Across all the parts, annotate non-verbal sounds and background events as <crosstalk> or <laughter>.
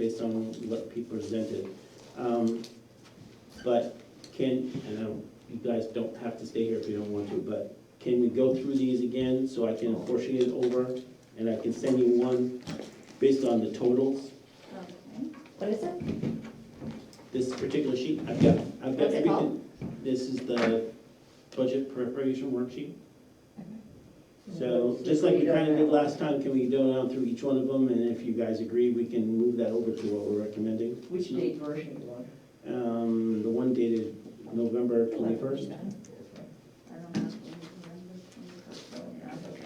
based on what people presented. Um, But can, and I don't, you guys don't have to stay here if you don't want to, but can we go through these again so I can portion it over? And I can send you one based on the totals, What is it? this particular sheet, I've got, I've got What's it called? everything. This is the budget preparation worksheet. So, just like we kinda did last time, can we go down through each one of them, and if you guys agree, we can move that over to what we're recommending? Which date version do you want? Um, the one dated November twenty-first.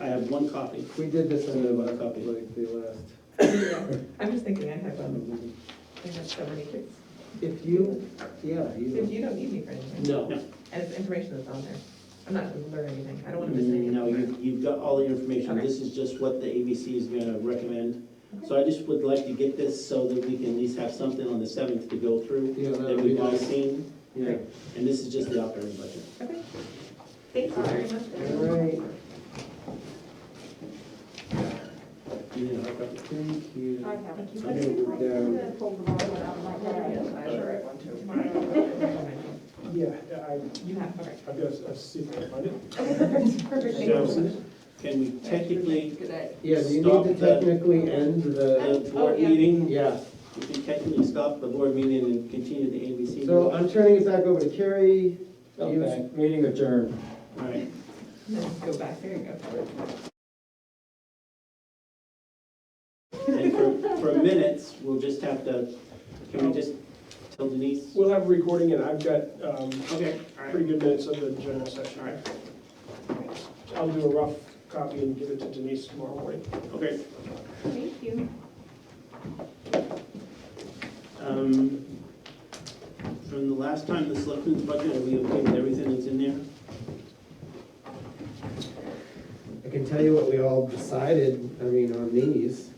I have one copy. We did this in the, One like, copy. the last. I'm just thinking, I have, um, I have so many kids. If you, yeah, So you, you don't need me for anything, no. and it's information that's on there. I'm not gonna learn anything, I don't wanna miss Mm, anything. No, you, you've got all the information. Okay. This is just what the ABC is gonna recommend. So I just would like to get this so that we can at least have something on the seventh to go through Yeah, that that'd be we've all nice. seen. Yeah. And this is just the operating budget. Okay, thank you very much. All right, Do you need a hard copy? thank you. I have it. I'm gonna go down. I'm sure I want to. Yeah, I, <laughs> You have, okay. I've got a secret, I didn't. Okay, perfect, perfect, thank <laughs> you. So, Can we technically, Yeah, do you Stop need to the- technically end the, the Oh, board yeah. meeting, yeah. we can technically stop the board meeting and continue the ABC? meeting? So I'm turning it back over to Carrie. Okay. Oh, Meeting adjourned. All right. Go back, there you go. And for, for minutes, we'll just have to, can we just tell Denise? We'll have a recording and I've got, um, Okay, all right, pretty good minutes of the general session. all right, I'll do a rough copy and give it to Denise tomorrow morning. okay. Thank you. Um, From the last time, the selectmen's budget, are we okay with everything that's in there? I can tell you what we all decided, I mean, on these.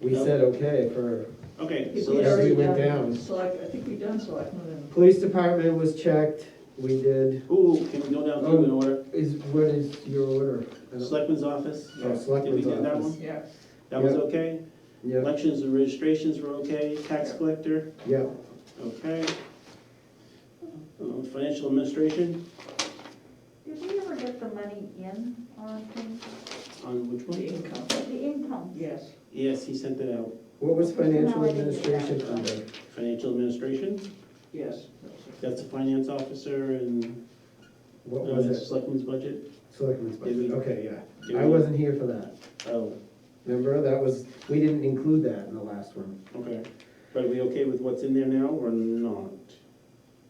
We Yep. said okay for, Okay, so as let's, we went down. Select, I think we've done select. Police department was checked, we did, ooh, can we go down through in order? is, what is your order? I don't- Selectmen's office? Oh, selectmen's Did we do that office. one? Yeah. That was Yeah. okay? Yep, Elections and registrations were okay, tax collector, yep. okay? Uh, Financial administration, Did we ever get the money in on things? on which one? The income? Yes. Yes, he sent that out. What was financial No, I didn't get that. administration under? Financial administration? Yes. That's the finance officer and What uh, was it? selectmen's budget? Selectmen's Did budget, we- okay, yeah. Did I we- wasn't here for that. Oh, Remember, that was, we didn't include that in the last one. okay. But are we okay with what's in there now or not?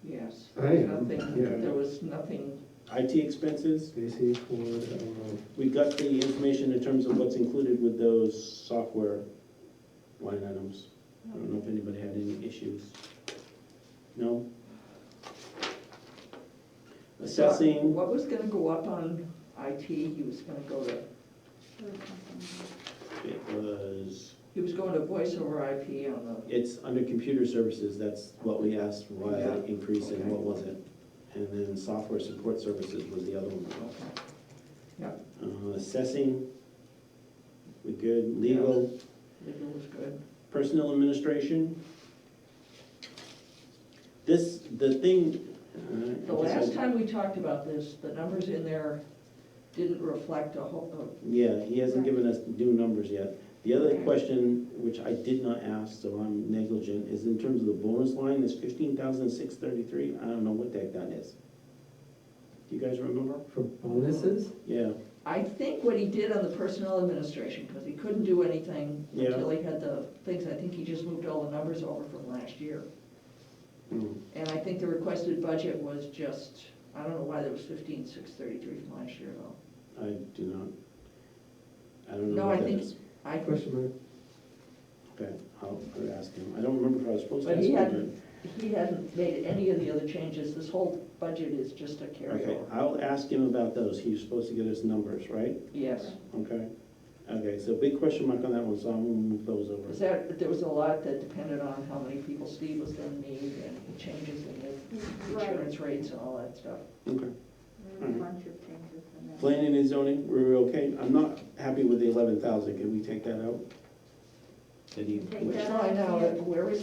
Yes. I am, Nothing, yeah. there was nothing, IT expenses, Stacy, Ford, I don't know. we got the information in terms of what's included with those software line items. I don't know if anybody had any issues. No? Assessing, what was gonna go up on IT, he was gonna go to, it was, he was going to voice over IP on the, it's under computer services, that's what we asked, why Yeah. the increase and Okay. what was it? And then software support services was the other one. Uh, Assessing, we good, legal, legal was good. personnel administration. This, the thing. uh, The last time we talked about this, the numbers in there didn't reflect a whole, uh, Yeah, he hasn't given us new numbers yet. The other Okay. question, which I did not ask, so I'm negligent, is in terms of the bonus line, this fifteen thousand six thirty-three, I don't know what the heck that is. Do you guys remember? For bonuses? Yeah, I think what he did on the personnel administration, because he couldn't do anything Yeah. until he had the things, I think he just moved all the numbers over from last year. mm, And I think the requested budget was just, I don't know why there was fifteen, six thirty-three from last year though. I do not. I don't know No, I what that think- is. I, Question mark? Okay, I'll I'll ask him. I don't remember if I was supposed to But ask he him. hadn't- he hasn't made any of the other changes, this whole budget is just a Okay, carryover. I'll ask him about those, he was supposed to get us numbers, right? Yes, Okay, okay, so big question mark on that one, so I'm gonna move those because over. that, there was a lot that depended on how many people Steve was gonna need and changes in the insurance rates and all that stuff. Okay, There were a bunch of changes in there. planning and zoning, we're okay, I'm not happy with the eleven thousand, can we take that out? that he Take wished. Try now, where is